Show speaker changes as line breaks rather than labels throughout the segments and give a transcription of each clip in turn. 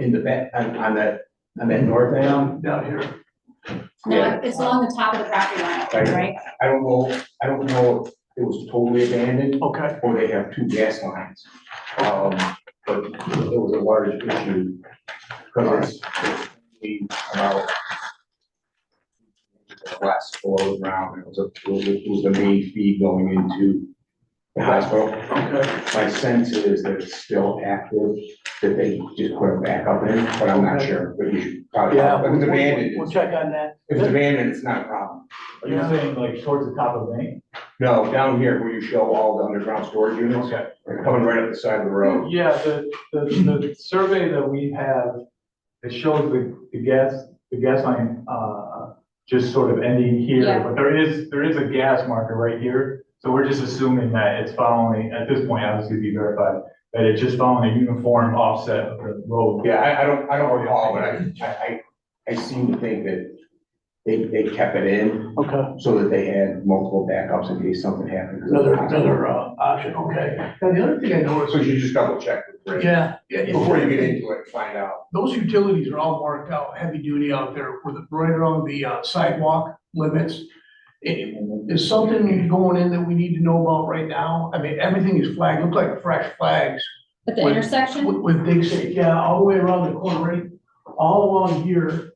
in the back, on, on that, on that north end down here.
No, it's along the top of the property line, I think, right?
I don't know, I don't know if it was totally abandoned
Okay,
or they have two gas lines. Um, but it was a large issue. Cause it's, we, about last floor around, it was a, it was, it was the main feed going into the hospital.
okay,
My sense is that it's still active, that they just put it back up in, but I'm not sure, but you should probably.
yeah.
If
we'll-
it's
we'll-
abandoned,
We'll
it's-
check on that.
if it's abandoned, it's not a problem.
Are you saying like towards the top of Main?
No, down here where you show all the underground storage units,
Okay.
they're coming right up the side of the road.
Yeah, the, the, the survey that we have, it shows the, the gas, the gas line, uh, just sort of ending here,
Yeah.
but there is, there is a gas marker right here. So we're just assuming that it's following, at this point, obviously be verified, that it's just following a uniform offset of the road.
Yeah, I, I don't, I don't recall, but I, I, I, I seem to think that they, they kept it in
Okay,
so that they had multiple backups in case something happened.
another, another, uh, option, okay. Now, the other thing I noticed,
So you just double check with Rick
yeah. yeah, yeah.
before you get into it, find out.
Those utilities are all marked out, heavy duty out there with, right around the uh, sidewalk limits. I- Is something going in that we need to know about right now? I mean, everything is flagged, look like fresh flags.
But the
Wait,
intersection,
With, with Big Sage, yeah, all the way around the corner, right? all along here.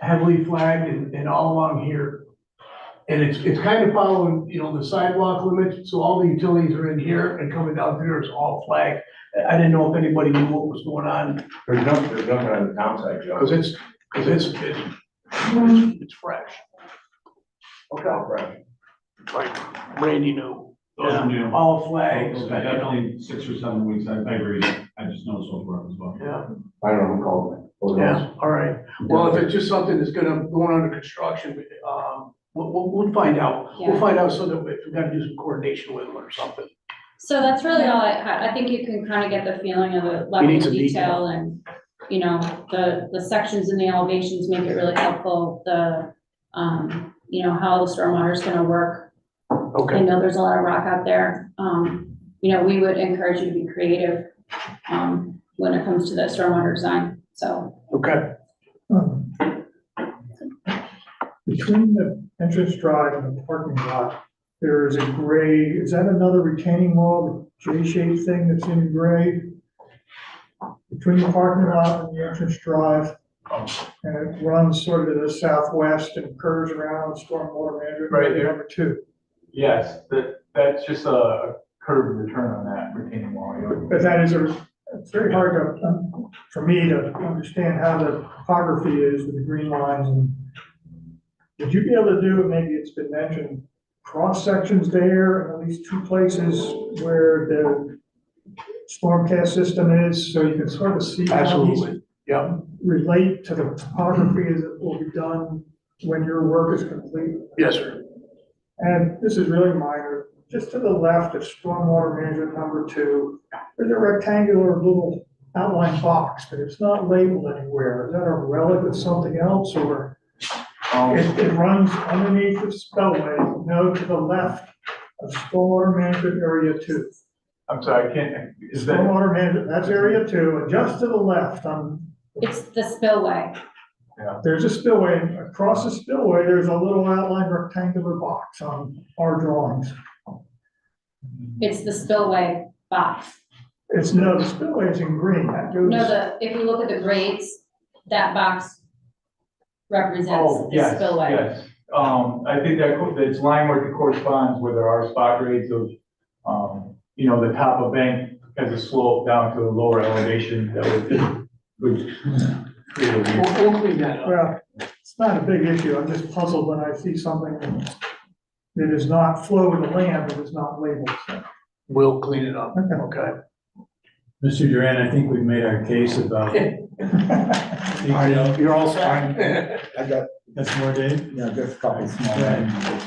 Heavily flagged and, and all along here. And it's, it's kind of following, you know, the sidewalk limits, so all the utilities are in here and coming down here is all flagged. I I didn't know if anybody knew what was going on,
There's nothing, there's nothing on the downside, Joe.
because it's, because it's, it's, it's, it's fresh. Okay,
Right.
like Randy knew,
Those are new.
all flags,
Those are
I don't-
Definitely six or seven weeks, I, I agree, I just noticed those were up as well.
yeah.
I don't know who called it. Who knows?
Yeah, all right. Well, if it's just something that's gonna, going under construction, um, we'll, we'll, we'll find out. We'll
Yeah.
find out so that we- we've gotta do some coordination with them or something.
so that's really all I had. I think you can kind of get the feeling of the level
need
of
some
detail and, you know, the, the sections and the elevations make it really helpful, the, um, you know, how the stormwater is gonna work. I
Okay.
know there's a lot of rock out there. Um, you know, we would encourage you to be creative, um, when it comes to the stormwater design, so.
Okay,
Um, Between the entrance drive and the parking lot, there is a gray, is that another retaining wall, the J-shaped thing that's in gray? Between the parking lot and the entrance drive, and it runs sort of to the southwest and curves around stormwater management.
Right there.
Number two,
Yes, that, that's just a- a curved return on that retaining wall. you know.
but that is a, it's very hard to, um, for me to understand how the topography is with the green lines and. Would you be able to do, maybe it's been mentioned, cross sections there and at least two places where the stormcast system is, so you can sort of see how these
absolutely. Yep,
relate to the topography as it will be done when your work is complete?
yes, sir.
And this is really minor, just to the left of stormwater management number two, there's a rectangular little outline box, but it's not labeled anywhere. Is that a relic of something else or?
Um,
It, it runs underneath the spellway, no, to the left of stormwater management area two.
I'm sorry, I can't, is that,
Stormwater management, that's area two, and just to the left, um,
It's the spillway.
there's a spillway, and across the spillway, there's a little outline rectangular box on our drawings.
It's the spillway box.
It's, no, the spillway is in green, that goes.
No, the, if we look at the grades, that box represents
oh,
the
yes,
spillway.
yes. Um, I think that, co- that's line work that corresponds where there are spot grades of, um, you know, the top of bank has a slope down to a lower elevation that would, would create a
We'll,
weird.
we'll clean that up.
Well, it's not a big issue, I'm just puzzled when I see something that is not flow to the land, but is not labeled. so.
We'll clean it up,
Okay.
okay?
Mr. Duran, I think we've made our case about. Detail.
You're all
set? I got
That's more, Dave?
Yeah, just a couple small
Right.
things.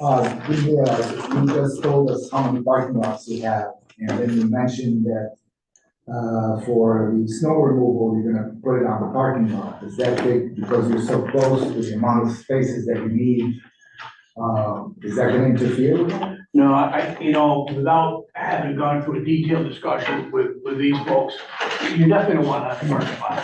Uh, we, uh, you just told us how many parking lots we have, and then you mentioned that uh, for the snow removal, you're gonna put it on the parking lot. Is that big, because you're so close to the amount of spaces that you need? Um, is that gonna interfere with that?
No, I, I- you know, without having gone through a detailed discussion with, with these folks, you're definitely gonna want to parking lot.